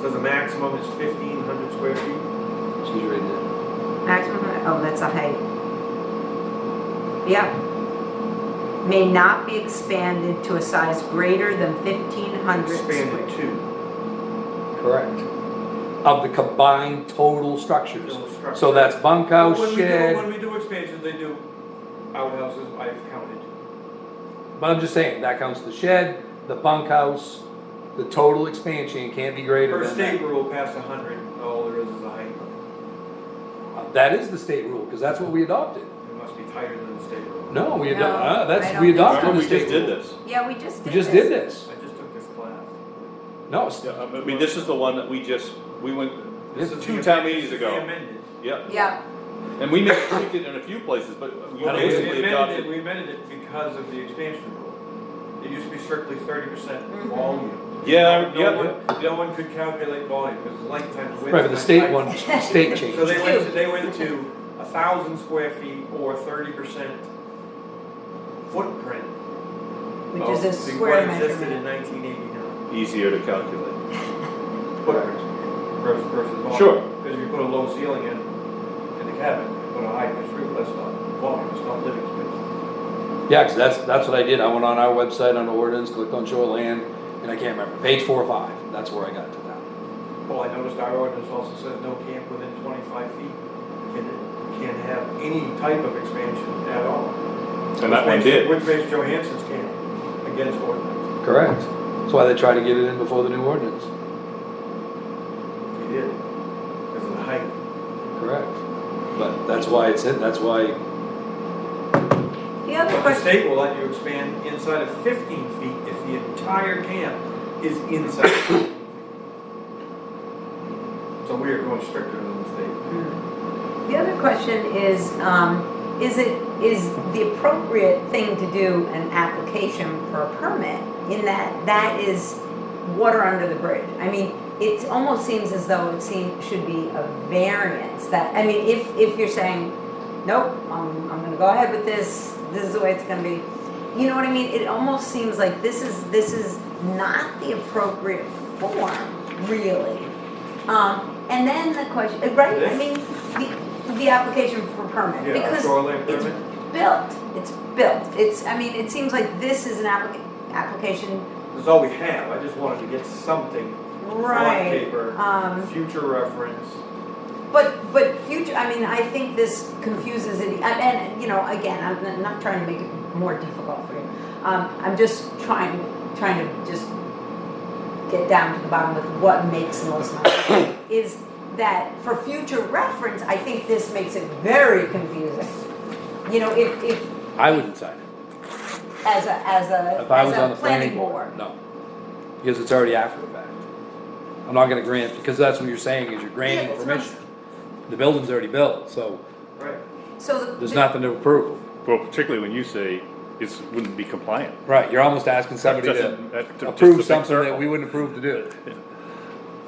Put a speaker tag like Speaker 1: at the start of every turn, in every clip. Speaker 1: So the maximum is fifteen hundred square feet?
Speaker 2: She's reading it.
Speaker 3: Maximum, oh, that's a height. Yeah. May not be expanded to a size greater than fifteen hundred
Speaker 1: Expanded
Speaker 3: square.
Speaker 1: to.
Speaker 2: Correct. Of the combined total structures.
Speaker 1: Total structure.
Speaker 2: So that's oh, bunkhouse,
Speaker 1: When we do-
Speaker 2: shed,
Speaker 1: When we do expansions, they do outhouses, I've counted.
Speaker 2: but I'm just saying, that counts the shed, the bunkhouse, the total expansion can't be greater
Speaker 1: Per
Speaker 2: than
Speaker 1: state
Speaker 2: that.
Speaker 1: rule, past a hundred, all there is is a height.
Speaker 2: Uh, That is the state rule, because that's what we adopted.
Speaker 1: It must be tighter than the state rule.
Speaker 2: No, we
Speaker 3: No,
Speaker 2: adopted, uh,
Speaker 3: I
Speaker 2: that's,
Speaker 3: don't
Speaker 2: we
Speaker 3: think so.
Speaker 2: adopted the
Speaker 4: Remember, we just
Speaker 2: state
Speaker 4: did
Speaker 2: rule.
Speaker 4: this.
Speaker 3: Yeah, we just
Speaker 2: We
Speaker 3: did
Speaker 2: just did this.
Speaker 1: I just took this class.
Speaker 2: No, it's-
Speaker 4: Yeah, I mean, this is the one that we just, we went,
Speaker 2: Yeah.
Speaker 4: this is
Speaker 1: the
Speaker 4: two
Speaker 1: amend-
Speaker 4: town
Speaker 1: this
Speaker 4: meetings
Speaker 1: is the
Speaker 4: ago.
Speaker 1: Amended.
Speaker 4: Yep,
Speaker 3: Yeah,
Speaker 4: and we may tweak it in a few places, but
Speaker 2: I
Speaker 4: we
Speaker 2: don't think
Speaker 1: We
Speaker 4: basically
Speaker 1: amended it,
Speaker 4: adopted.
Speaker 1: we amended it because of the expansion rule. It used to be strictly thirty percent volume.
Speaker 4: Yeah,
Speaker 1: No
Speaker 4: yeah,
Speaker 1: one, no one could calculate volume, because length times width.
Speaker 2: right, but the
Speaker 1: times
Speaker 2: state
Speaker 1: height.
Speaker 2: one, the state
Speaker 1: So
Speaker 2: changed.
Speaker 1: they went, to- they went to a thousand square feet or thirty percent footprint
Speaker 3: which
Speaker 1: of
Speaker 3: is a
Speaker 1: the-
Speaker 3: square
Speaker 1: What Oh, existed in
Speaker 3: measurement.
Speaker 1: nineteen eighty-nine.
Speaker 4: easier to calculate.
Speaker 1: Footprint versus, versus volume.
Speaker 4: Sure.
Speaker 1: Because if you put a low ceiling in, in the cabin, you put a high pitch roof, that's not volume, it's not living space.
Speaker 2: Yeah, 'cause that's, that's what I did, I went on our website, on ordinance, clicked on shoreland, and I can't remember, page four or five, that's where I got to that.
Speaker 1: Well, I noticed our ordinance also says no camp within twenty-five feet can, can have any type of expansion at all.
Speaker 4: And that
Speaker 1: Which
Speaker 4: one
Speaker 1: makes-
Speaker 4: did.
Speaker 1: Which makes Johansson's camp against ordinance.
Speaker 2: Correct. That's why they try to get it in before the new ordinance.
Speaker 1: He did, because of the height.
Speaker 2: Correct. But that's why it's in, that's why,
Speaker 3: The other
Speaker 1: But the
Speaker 3: question,
Speaker 1: state will let you expand inside of fifteen feet if the entire camp is inside. 15 feet. So we are going stricter than the state.
Speaker 3: the other question is, um, is it, is the appropriate thing to do an application for a permit? In that, that is water under the bridge. I mean, it almost seems as though it seem, should be a variance that, I mean, if, if you're saying, nope, I'm, I'm gonna go ahead with this, this is the way it's gonna be. You know what I mean? It almost seems like this is, this is not the appropriate form, really. Um, and then the question, uh, right, I
Speaker 1: This?
Speaker 3: mean, the, the application for permit,
Speaker 1: Yeah, our
Speaker 3: because
Speaker 1: shoreline
Speaker 3: it's
Speaker 1: permit,
Speaker 3: built, it's built, it's, I mean, it seems like this is an applica- application,
Speaker 1: that's all we have, I just wanted to get something on
Speaker 3: right,
Speaker 1: paper,
Speaker 3: um.
Speaker 1: future reference.
Speaker 3: But, but future, I mean, I think this confuses it, and, and, you know, again, I'm n- not trying to make it more difficult for you. Um, I'm just trying, trying to just get down to the bottom with what makes most sense. Is that for future reference, I think this makes it very confusing. You know, if, if,
Speaker 2: I wouldn't sign it.
Speaker 3: as a, as a,
Speaker 2: If I was on
Speaker 3: as
Speaker 2: the
Speaker 3: a planning board.
Speaker 2: No. Because it's already after the fact. I'm not gonna grant, because that's what you're saying, is you're
Speaker 3: Yeah,
Speaker 2: granting
Speaker 3: that's what I'm-
Speaker 2: permission. The building's already built, so
Speaker 1: Right.
Speaker 3: So the.
Speaker 2: there's
Speaker 3: the-
Speaker 2: nothing to approve.
Speaker 5: Well, particularly when you say it's, wouldn't be compliant.
Speaker 2: Right, you're almost asking somebody
Speaker 5: Doesn't-
Speaker 2: to
Speaker 5: that- to- just a
Speaker 2: approve
Speaker 5: big
Speaker 2: something that
Speaker 5: circle.
Speaker 2: we wouldn't approve to do.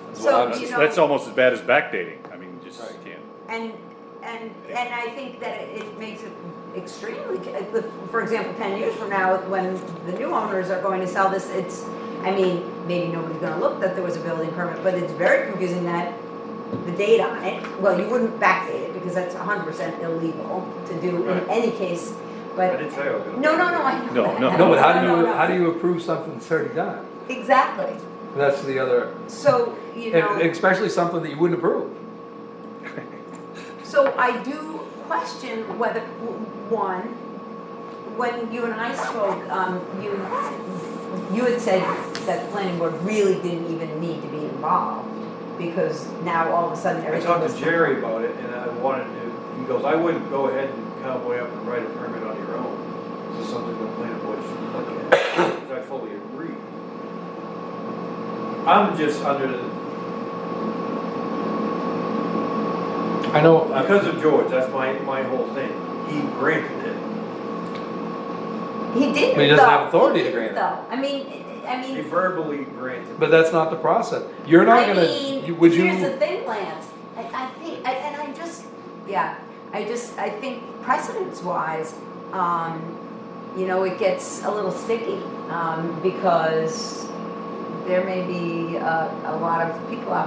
Speaker 2: That's what
Speaker 3: So,
Speaker 2: I'm-
Speaker 3: you know-
Speaker 5: That's almost as bad as backdating. I mean, just
Speaker 2: Right.
Speaker 5: can't.
Speaker 3: And, and, and I think that it it makes it extremely, uh, for example, ten years from now, when the new owners are going to sell this, it's, I mean, maybe nobody's gonna look that there was a building permit, but it's very confusing that the date on it, well, you wouldn't backdate it, because that's hundred percent illegal to do in
Speaker 1: Right.
Speaker 3: any case,
Speaker 1: I
Speaker 3: but,
Speaker 1: didn't say I was gonna.
Speaker 3: no, no, no, I.
Speaker 5: No, no.
Speaker 2: No, but how do
Speaker 3: No,
Speaker 2: you,
Speaker 3: no.
Speaker 2: how do you approve something that's already done?
Speaker 3: Exactly,
Speaker 2: That's the other,
Speaker 3: so, you know.
Speaker 2: and especially something that you wouldn't approve.
Speaker 3: So I do question whether, w- one, when you and I spoke, um, you, you had said that the planning board really didn't even need to be involved because now all of a sudden
Speaker 1: I
Speaker 3: everything
Speaker 1: talked
Speaker 3: was.
Speaker 1: to Jerry about it and I wanted to, he goes, I wouldn't go ahead and cowboy up and write a permit on your own. This is something the planning board should look at, which I fully agree. I'm just under, the-
Speaker 2: I know, I-
Speaker 1: because of George, that's my, my whole thing. He granted it.
Speaker 3: He didn't
Speaker 2: But he doesn't have
Speaker 3: though.
Speaker 2: authority to
Speaker 3: He
Speaker 2: grant
Speaker 3: didn't
Speaker 2: it.
Speaker 3: Though, I mean, I
Speaker 1: He
Speaker 3: mean,
Speaker 1: verbally granted. it.
Speaker 2: but that's not the process. You're not
Speaker 3: I
Speaker 2: gonna, you-
Speaker 3: mean,
Speaker 2: would
Speaker 3: here's the
Speaker 2: you,
Speaker 3: thing, Lance, I, I think, I- and I just, yeah, I just, I think precedence wise, um, you know, it gets a little sticky, um, because there may be a, a lot of people out